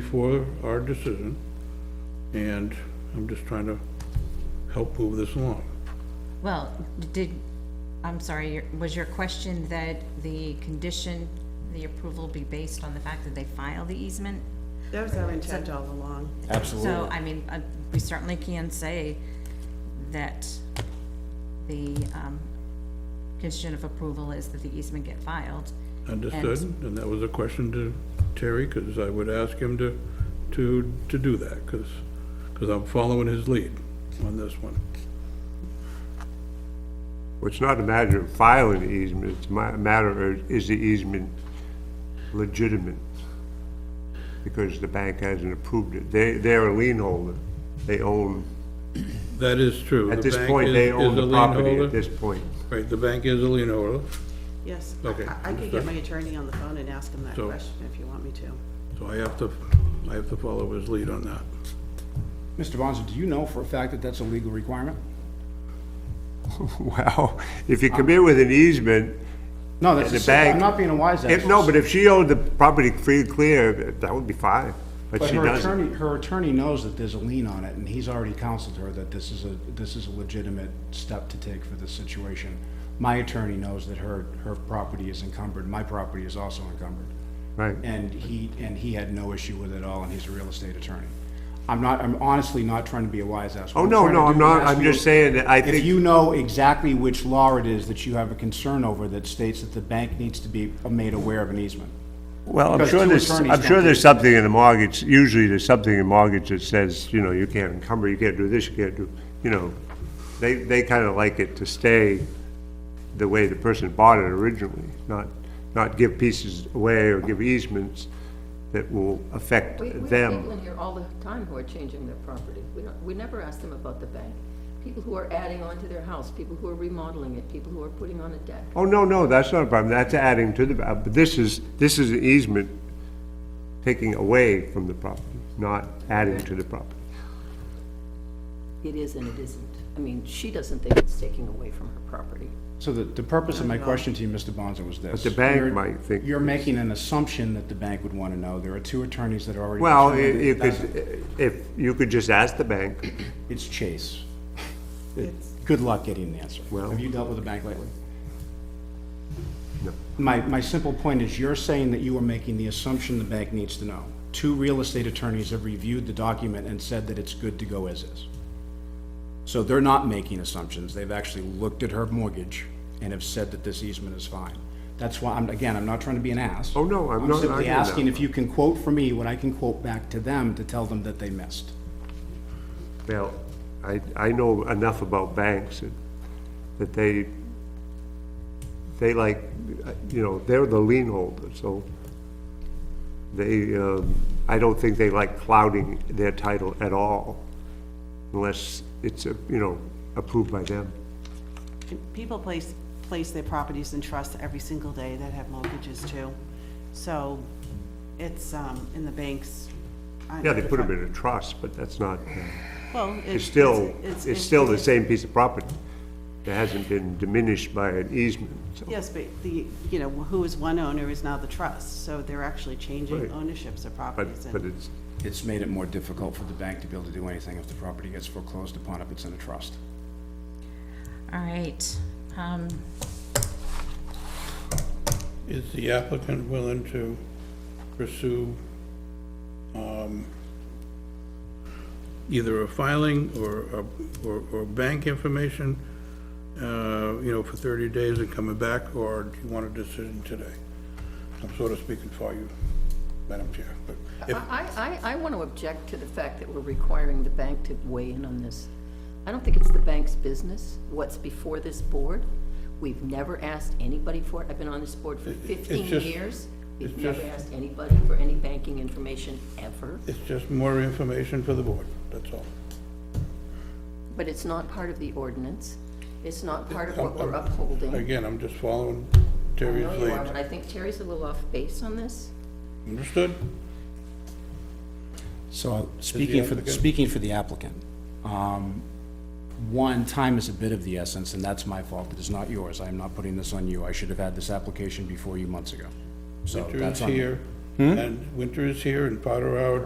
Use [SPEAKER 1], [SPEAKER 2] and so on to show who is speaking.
[SPEAKER 1] before our decision, and I'm just trying to help move this along.
[SPEAKER 2] Well, did, I'm sorry, your- was your question that the condition, the approval be based on the fact that they file the easement?
[SPEAKER 3] That was our intent all along.
[SPEAKER 2] So, I mean, uh, we certainly can say that the um, condition of approval is that the easement get filed.
[SPEAKER 1] Understood? And that was a question to Terry, because I would ask him to, to, to do that, because, because I'm following his lead on this one.
[SPEAKER 4] Well, it's not a matter of filing the easement, it's ma- a matter of, is the easement legitimate? Because the bank hasn't approved it. They, they're a lien holder. They own,
[SPEAKER 1] That is true.
[SPEAKER 4] at
[SPEAKER 1] The
[SPEAKER 4] this
[SPEAKER 1] bank
[SPEAKER 4] point,
[SPEAKER 1] is-
[SPEAKER 4] they
[SPEAKER 1] is
[SPEAKER 4] own
[SPEAKER 1] a
[SPEAKER 4] the
[SPEAKER 1] lien
[SPEAKER 4] property
[SPEAKER 1] holder.
[SPEAKER 4] at this point.
[SPEAKER 1] Right, the bank is a lien holder,
[SPEAKER 3] Yes.
[SPEAKER 1] Okay,
[SPEAKER 3] I- I could get my attorney on the phone and ask him that
[SPEAKER 1] So-
[SPEAKER 3] question if you want me to.
[SPEAKER 1] so I have to, I have to follow his lead on that.
[SPEAKER 5] Mr. Bonzo, do you know for a fact that that's a legal requirement?
[SPEAKER 4] Well, if you come in with an easement,
[SPEAKER 5] No, that's,
[SPEAKER 4] The
[SPEAKER 5] a sa- I'm
[SPEAKER 4] bank-
[SPEAKER 5] not being a wise ass.
[SPEAKER 4] if, no, but if she owned the property free and clear, that would be fine, but
[SPEAKER 5] But
[SPEAKER 4] she
[SPEAKER 5] her
[SPEAKER 4] doesn't.
[SPEAKER 5] attorney, her attorney knows that there's a lien on it, and he's already counseled her that this is a, this is a legitimate step to take for this situation. My attorney knows that her, her property is encumbered, my property is also encumbered.
[SPEAKER 4] Right.
[SPEAKER 5] And he, and he had no issue with it at all, and he's a real estate attorney. I'm not, I'm honestly not trying to be a wise ass. What
[SPEAKER 4] Oh, no,
[SPEAKER 5] trying to do is
[SPEAKER 4] no, I'm not.
[SPEAKER 5] ask
[SPEAKER 4] I'm
[SPEAKER 5] you-
[SPEAKER 4] just saying that I think-
[SPEAKER 5] If you know exactly which law it is that you have a concern over that states that the bank needs to be made aware of an easement.
[SPEAKER 4] Well, I'm
[SPEAKER 5] Because
[SPEAKER 4] sure
[SPEAKER 5] two
[SPEAKER 4] there's,
[SPEAKER 5] attorneys
[SPEAKER 4] I'm
[SPEAKER 5] don't
[SPEAKER 4] sure
[SPEAKER 5] do
[SPEAKER 4] there's
[SPEAKER 5] it.
[SPEAKER 4] something in the mortgage, usually there's something in mortgage that says, you know, you can't encumber, you can't do this, you can't do, you know. They, they kind of like it to stay the way the person bought it originally, not, not give pieces away or give easements that will affect
[SPEAKER 6] We, we have people
[SPEAKER 4] them.
[SPEAKER 6] in here all the time who are changing their property. We don't, we never ask them about the bank. People who are adding on to their house, people who are remodeling it, people who are putting on a deck.
[SPEAKER 4] Oh, no, no, that's not a problem, that's adding to the, uh, but this is, this is an easement taking away from the property, not adding to the property.
[SPEAKER 6] It is and it isn't. I mean, she doesn't think it's taking away from her property.
[SPEAKER 5] So the, the purpose of my question to you, Mr. Bonzo, was this.
[SPEAKER 4] the bank
[SPEAKER 5] You're-
[SPEAKER 4] might think-
[SPEAKER 5] You're making an assumption that the bank would want to know. There are two attorneys that are already.
[SPEAKER 4] Well, i-
[SPEAKER 5] determined that
[SPEAKER 4] you
[SPEAKER 5] it doesn't.
[SPEAKER 4] could, if, you could just ask the bank,
[SPEAKER 5] It's Chase. Good luck getting the answer.
[SPEAKER 4] Well-
[SPEAKER 5] Have you dealt with a bank lately?
[SPEAKER 4] No.
[SPEAKER 5] My, my simple point is you're saying that you are making the assumption the bank needs to know. Two real estate attorneys have reviewed the document and said that it's good to go as is. So they're not making assumptions. They've actually looked at her mortgage and have said that this easement is fine. That's why, I'm, again, I'm not trying to be an ass.
[SPEAKER 4] Oh, no, I'm not
[SPEAKER 5] simply
[SPEAKER 4] arguing that.
[SPEAKER 5] asking if you can quote for me what I can quote back to them to tell them that they missed.
[SPEAKER 4] Well, I, I know enough about banks that, that they, they like, you know, they're the lien holder, so they, um, I don't think they like clouding their title at all unless it's, uh, you know, approved by them.
[SPEAKER 3] And People place, place their properties in trust every single day that have mortgages too. So it's, um, in the banks. I-
[SPEAKER 4] Yeah, they put them in a trust, but that's not,
[SPEAKER 3] Well.
[SPEAKER 4] it's still, it's still the same piece of property. It hasn't been diminished by an easement, so.
[SPEAKER 3] Yes, but the, you know, who is one owner is now the trust, so they're actually changing
[SPEAKER 4] Right.
[SPEAKER 3] ownerships of properties. and-
[SPEAKER 4] But, but it's,
[SPEAKER 5] It's made it more difficult for the bank to be able to do anything if the property gets foreclosed upon if it's in a trust.
[SPEAKER 2] All right, um,
[SPEAKER 1] Is the applicant willing to pursue, um, either a filing or, a- or, or bank information, uh, you know, for thirty days and coming back, or do you want a decision today? I'm sort of speaking for you, Madam Chair, but if,
[SPEAKER 6] I, I, I want to object to the fact that we're requiring the bank to weigh in on this. I don't think it's the bank's business, what's before this board. We've never asked anybody for it. I've been on this board for fifteen
[SPEAKER 1] just-
[SPEAKER 6] years. We've
[SPEAKER 1] it's
[SPEAKER 6] never
[SPEAKER 1] just-
[SPEAKER 6] asked anybody for any banking information ever.
[SPEAKER 1] it's just more information for the board, that's all.
[SPEAKER 6] But it's not part of the ordinance. It's not part of what we're upholding.
[SPEAKER 1] Again, I'm just following
[SPEAKER 6] I
[SPEAKER 1] Terry's
[SPEAKER 6] know you are, but
[SPEAKER 1] lead.
[SPEAKER 6] I think Terry's a little off base on this.
[SPEAKER 1] Understood?
[SPEAKER 5] So, speaking for,
[SPEAKER 1] applicant-
[SPEAKER 5] speaking for the applicant, um, one, time is a bit of the essence, and that's my fault, it is not yours, I am not putting this on you, I should have had this application before you months ago. So,
[SPEAKER 1] Victor is
[SPEAKER 5] that's on me.
[SPEAKER 1] here, And winter is here and Potter Hour